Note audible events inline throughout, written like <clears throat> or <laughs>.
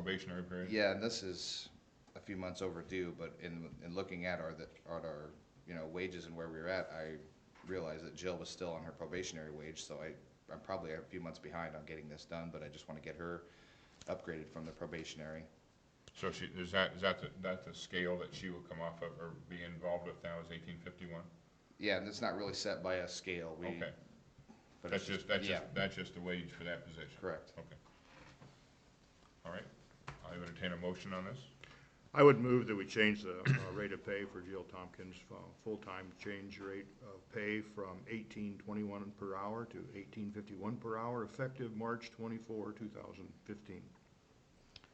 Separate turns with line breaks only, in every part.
probationary period.
Yeah, and this is a few months overdue, but in, in looking at our, that, at our, you know, wages and where we were at, I realized that Jill was still on her probationary wage, so I, I'm probably a few months behind on getting this done, but I just wanna get her upgraded from the probationary.
So she, is that, is that, the- that the scale that she will come off of or be involved with now is eighteen fifty-one?
Yeah, and it's not really set by a scale, we.
Okay,
but
that's
it's
just, that's just,
yeah,
that's just the wage for that position?
Correct.
Okay. All right, I would entertain a motion on this.
I would move that we change the uh, rate of pay for Jill Tompkins, uh, full-time change rate of pay from eighteen twenty-one per hour to eighteen fifty-one per hour, effective March twenty-four, two thousand fifteen.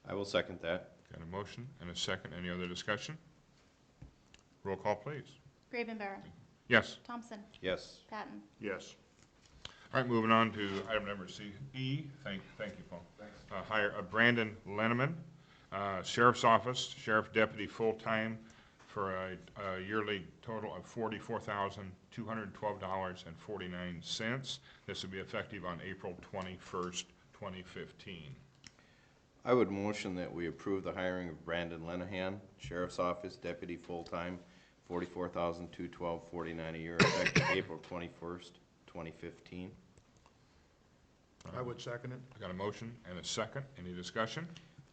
I will second that.
Got a motion and a second, any other discussion? Roll call, please.
Gravenbauer.
Yes.
Thompson.
Yes.
Patton.
Yes.
All right, moving on to item number C, E, thank, thank you, Paul. Uh, hire uh, Brandon Lenneman, uh, Sheriff's Office, Sheriff Deputy, full-time, for a, a yearly total of forty-four thousand, two hundred and twelve dollars and forty-nine cents. This will be effective on April twenty-first, twenty fifteen.
I would motion that we approve the hiring of Brandon Lenahan, Sheriff's Office Deputy Full-Time, forty-four thousand, two twelve, forty-nine a year, effective <coughs> April twenty-first, twenty fifteen.
I would second it.
I got a motion and a second, any discussion?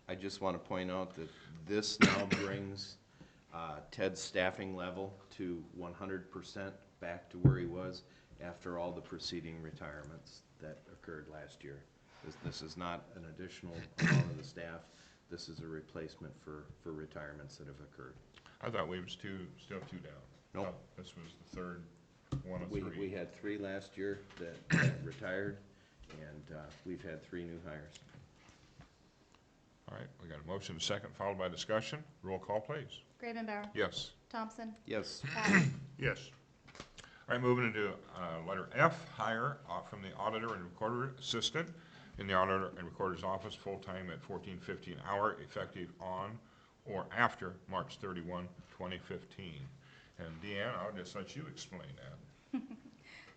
I just want to point out that this now brings uh, Ted's staffing level to one hundred percent back to where he was after all the preceding retirements that occurred last year. This- This is not an additional amount of the staff. This is a replacement for, for retirements that have occurred.
I thought we was two, still two down.
Nope.
Oh, This was the third, one of
We,
three.
we had three last year that- that retired, and uh, we've had three new hires.
All right, we got a motion, second, followed by discussion. Roll call, please.
Gravenbauer.
Yes.
Thompson.
Yes,
Patton.
Yes.
All right, moving into uh, letter F, hire uh, from the auditor and recorder assistant in the auditor and recorder's office, full-time at fourteen fifty an hour, effective on or after March 31, 2015. And Deanne, I'll just let you explain that.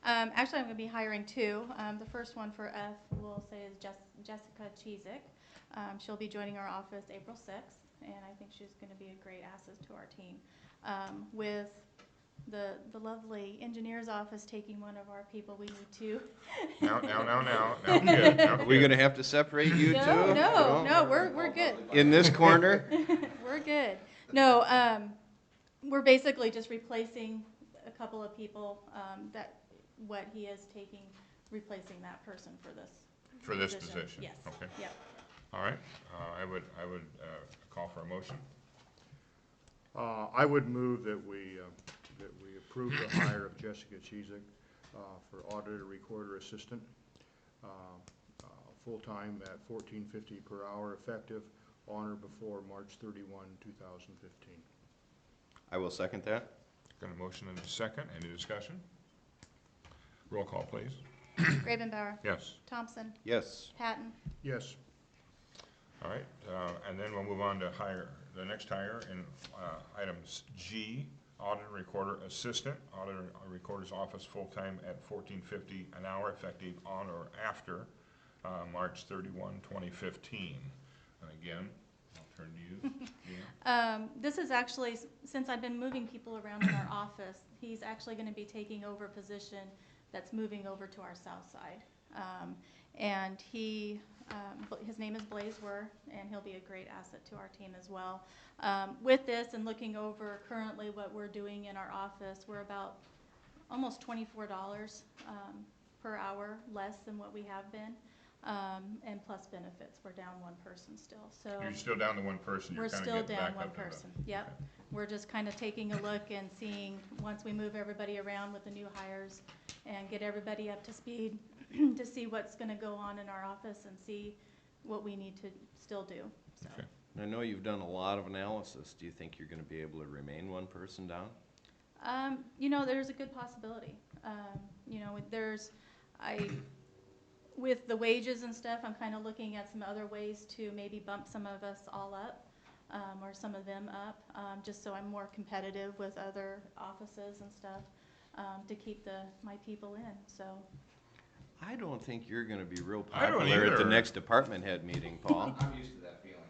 Um, actually, I'm gonna be hiring two. Um, the first one for F, we'll say is Jes- Jessica Cheezick. Um, she'll be joining our office April sixth, and I think she's gonna be a great asset to our team. Um, with the, the lovely engineer's office taking one of our people, we need two.
Now, now, now, now, now, kid, now,
are we
kid.
gonna have to separate you two?
No, no,
You know?
no, we're, we're good.
In this corner?
We're good. No, um, we're basically just replacing a couple of people, um, that, what he is taking, replacing that person for this.
For this position?
Yes,
Okay,
yep.
<clears throat> all right. Uh, I would, I would uh, call for a motion.
Uh, I would move that we, uh, that we approve the hire of Jessica Cheezick, uh, for auditor recorder assistant, uh, uh, full-time at fourteen fifty per hour, effective on or before March thirty-one, two thousand fifteen.
I will second that.
Got a motion and a second, any discussion? Roll call, please.
Gravenbauer,
Yes.
Thompson,
Yes,
Patton,
Yes,
All right, uh, and then we'll move on to hire, the next hire in uh, items G, auditor recorder assistant, auditor uh, recorder's office, full-time at fourteen fifty an hour, effective on or after uh, March thirty-one, twenty fifteen. And again, I'll turn to you,
<laughs>
Deanne.
Um, this is actually, s- since I've been moving people around in our office, he's actually gonna be taking over a position that's moving over to our south side. Um, and he, um, Bla- his name is Blaze Were, and he'll be a great asset to our team as well. Um, with this and looking over currently what we're doing in our office, we're about almost twenty-four dollars, um, per hour, less than what we have been. Um, and plus benefits, we're down one person still, so.
You're still down to one person, you're
We're
kind of
still
getting back
down
up.
one
to the-
person, yep. We're just kind of taking a look and seeing, once we move everybody around with the new hires and get everybody up to speed, <clears throat> to see what's gonna go on in our office and see what we need to still do, so.
Okay.
I know you've done a lot of analysis. Do you think you're gonna be able to remain one person down?
Um, you know, there's a good possibility. Um, you know, with- there's, I, with the wages and stuff, I'm kind of looking at some other ways to maybe bump some of us all up, um, or some of them up, um, just so I'm more competitive with other offices and stuff, um, to keep the, my people in, so.
I don't think you're gonna be real
I don't
popular at the
either.
next department head meeting, Paul.
<laughs> I'm used to that feeling.